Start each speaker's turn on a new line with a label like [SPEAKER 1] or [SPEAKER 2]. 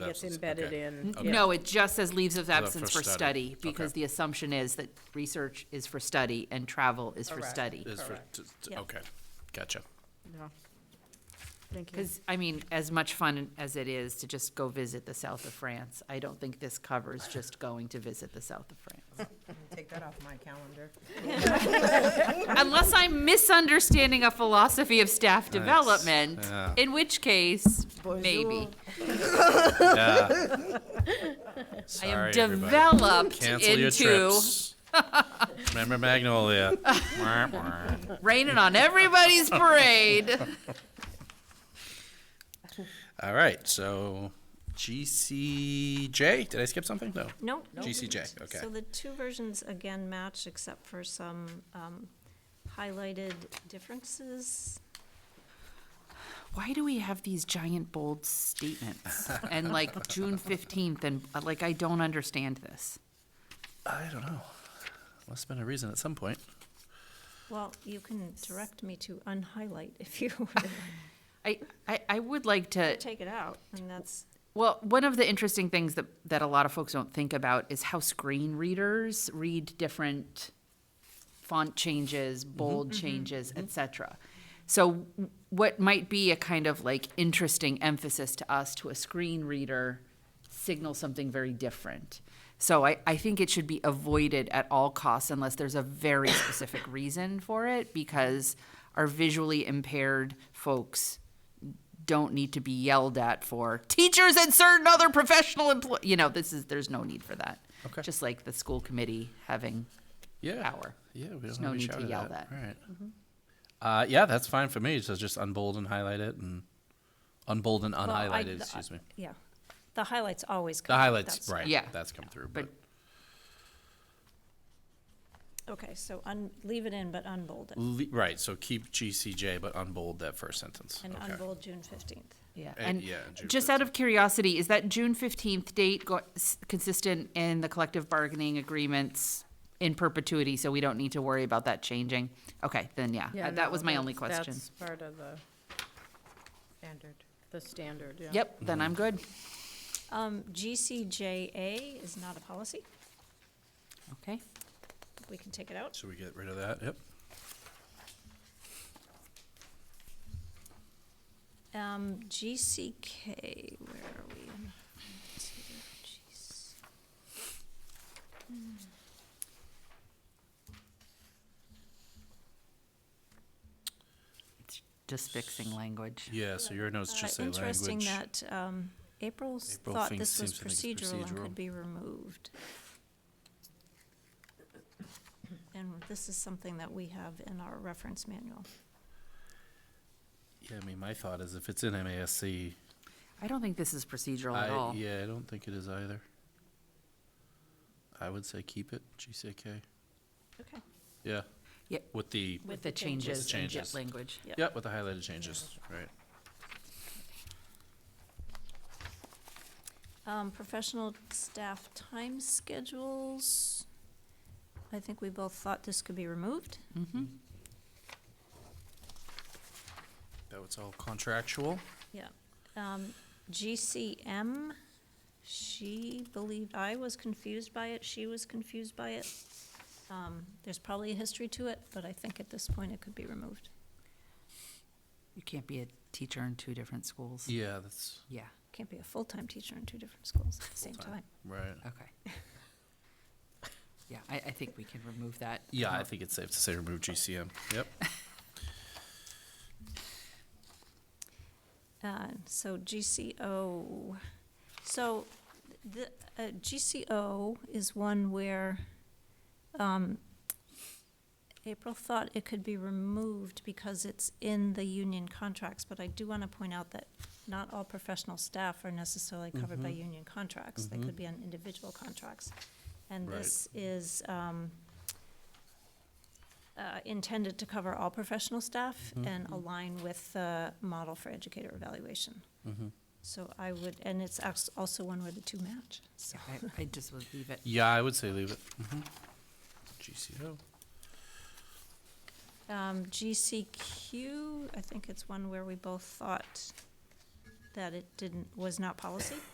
[SPEAKER 1] gets
[SPEAKER 2] absence,
[SPEAKER 1] embedded
[SPEAKER 2] okay. Okay.
[SPEAKER 1] in.
[SPEAKER 3] Mm-hmm. No, it just says leaves of absence
[SPEAKER 2] for
[SPEAKER 3] for
[SPEAKER 2] study,
[SPEAKER 3] study, because
[SPEAKER 2] okay.
[SPEAKER 3] the assumption is that research is for study and travel is for
[SPEAKER 1] Correct.
[SPEAKER 3] study.
[SPEAKER 2] Is for,
[SPEAKER 1] Correct.
[SPEAKER 2] t- t-
[SPEAKER 1] Yep.
[SPEAKER 2] okay, gotcha.
[SPEAKER 1] Thank you.
[SPEAKER 3] Because, I mean, as much fun as it is to just go visit the south of France, I don't think this covers just going to visit the south of France.
[SPEAKER 4] Take that off my calendar.
[SPEAKER 3] Unless I'm misunderstanding a philosophy of staff development,
[SPEAKER 2] yeah.
[SPEAKER 3] in which case, maybe.
[SPEAKER 2] Yeah.
[SPEAKER 3] I am
[SPEAKER 2] Sorry, everybody.
[SPEAKER 3] developed
[SPEAKER 2] Cancel your
[SPEAKER 3] into
[SPEAKER 2] trips. Remember Magnolia. Wah, wah.
[SPEAKER 3] raining on everybody's parade.
[SPEAKER 2] All right, so GCJ, did I skip something? No.
[SPEAKER 5] Nope.
[SPEAKER 2] GCJ, okay.
[SPEAKER 5] So the two versions again match except for some um, highlighted differences.
[SPEAKER 3] why do we have these giant bold statements and like June fifteenth and uh, like I don't understand this.
[SPEAKER 2] I don't know. Must have been a reason at some point.
[SPEAKER 5] Well, you can direct me to unhighlight if you would
[SPEAKER 3] I, I, I would like to
[SPEAKER 5] take it out, and that's,
[SPEAKER 3] well one of the interesting things that, that a lot of folks don't think about is how screen readers read different font changes bold changes etc so w- what might be a kind of like interesting emphasis to us to a screen reader signals something very different so I, I think it should be avoided at all costs unless there's a very specific reason for it because our visually impaired folks don't need to be yelled at for teachers and certain other professional employ. You know, this is there's no need for that.
[SPEAKER 2] Okay.
[SPEAKER 3] Just like the school committee having
[SPEAKER 2] Yeah.
[SPEAKER 3] power.
[SPEAKER 2] Yeah, we
[SPEAKER 3] There's
[SPEAKER 2] don't wanna
[SPEAKER 3] no
[SPEAKER 2] be
[SPEAKER 3] need to
[SPEAKER 2] shouted
[SPEAKER 3] yell
[SPEAKER 2] at.
[SPEAKER 3] that. Mm-hmm.
[SPEAKER 2] All right. Uh, yeah, that's fine for me. So just unbold and highlight it and unbold and
[SPEAKER 5] I-
[SPEAKER 2] unhighlighted,
[SPEAKER 5] the-
[SPEAKER 2] excuse me.
[SPEAKER 5] yeah. The highlights always
[SPEAKER 2] The
[SPEAKER 5] come.
[SPEAKER 2] highlights,
[SPEAKER 5] That's-
[SPEAKER 2] right.
[SPEAKER 3] Yeah.
[SPEAKER 2] That's come through, but
[SPEAKER 3] But
[SPEAKER 5] Okay, so un, leave it in, but unbold it,
[SPEAKER 2] Le- right, so keep GCJ, but unbold that first sentence.
[SPEAKER 5] and
[SPEAKER 2] Okay.
[SPEAKER 5] unbold June fifteenth.
[SPEAKER 3] yeah,
[SPEAKER 2] Eh,
[SPEAKER 3] and
[SPEAKER 2] yeah, June
[SPEAKER 3] just out of curiosity, is that June fifteenth date go- s- consistent in the collective bargaining agreements in perpetuity? So we don't need to worry about that changing. Okay, then yeah,
[SPEAKER 1] Yeah,
[SPEAKER 3] uh, that
[SPEAKER 1] no,
[SPEAKER 3] was my only
[SPEAKER 1] that's-
[SPEAKER 3] question.
[SPEAKER 1] That's part of the,
[SPEAKER 4] Standard.
[SPEAKER 1] the standard, yeah.
[SPEAKER 3] Yep, then I'm good.
[SPEAKER 5] Um, GCJA is not a policy,
[SPEAKER 3] Okay.
[SPEAKER 5] we can take it out.
[SPEAKER 2] So we get rid of that, yep.
[SPEAKER 5] Um, GCK, where are we? Let's see here, GC.
[SPEAKER 3] Just fixing language.
[SPEAKER 2] Yeah, so your notes
[SPEAKER 5] Uh,
[SPEAKER 2] just say language.
[SPEAKER 5] Interesting that, um, April's
[SPEAKER 2] April
[SPEAKER 5] thought
[SPEAKER 2] thinks-
[SPEAKER 5] this was
[SPEAKER 2] seems to think it's
[SPEAKER 5] procedural and
[SPEAKER 2] procedural.
[SPEAKER 5] could be removed. And this is something that we have in our reference manual.
[SPEAKER 2] Yeah, I mean, my thought is if it's in MASC,
[SPEAKER 3] I don't think this is procedural
[SPEAKER 2] I,
[SPEAKER 3] at all.
[SPEAKER 2] Uh, yeah, I don't think it is either. I would say keep it, GCK,
[SPEAKER 5] Okay.
[SPEAKER 2] yeah.
[SPEAKER 3] Yeah.
[SPEAKER 2] With the,
[SPEAKER 3] With the changes in
[SPEAKER 2] changes.
[SPEAKER 3] jet language.
[SPEAKER 5] Yep.
[SPEAKER 2] yeah, with the highlighted changes, right.
[SPEAKER 5] Um, professional staff time schedules. I think we both thought this could be removed.
[SPEAKER 3] Mm-hmm.
[SPEAKER 2] That was all contractual.
[SPEAKER 5] Yeah. Um, GCM, she believed, I was confused by it, she was confused by it. Um, there's probably a history to it, but I think at this point it could be removed.
[SPEAKER 3] You can't be a teacher in two different schools.
[SPEAKER 2] Yeah, that's
[SPEAKER 3] Yeah,
[SPEAKER 5] Can't be a full-time teacher in two different schools at the same
[SPEAKER 2] Full-time.
[SPEAKER 5] time.
[SPEAKER 2] right.
[SPEAKER 3] okay. Yeah, I, I think we can remove that.
[SPEAKER 2] Yeah, I
[SPEAKER 3] Um,
[SPEAKER 2] think it's safe to say remove GCM, yep.
[SPEAKER 5] Uh, so GCO, so the, uh, GCO is one where, um, April thought it could be removed because it's in the union contracts, but I do want to point out that not all professional staff are necessarily covered by union contracts. They could be on individual contracts. And
[SPEAKER 2] Right.
[SPEAKER 5] this is, um, uh, intended to cover all professional staff and align with the model for educator evaluation.
[SPEAKER 2] Mm-hmm.
[SPEAKER 5] So I would, and it's als- also one where the two match, so.
[SPEAKER 3] yeah, I, I just would leave it.
[SPEAKER 2] Yeah, I would say leave it. Mhm. GCO,
[SPEAKER 5] Um, GCQ, I think it's one where we both thought that it didn't, was not policy.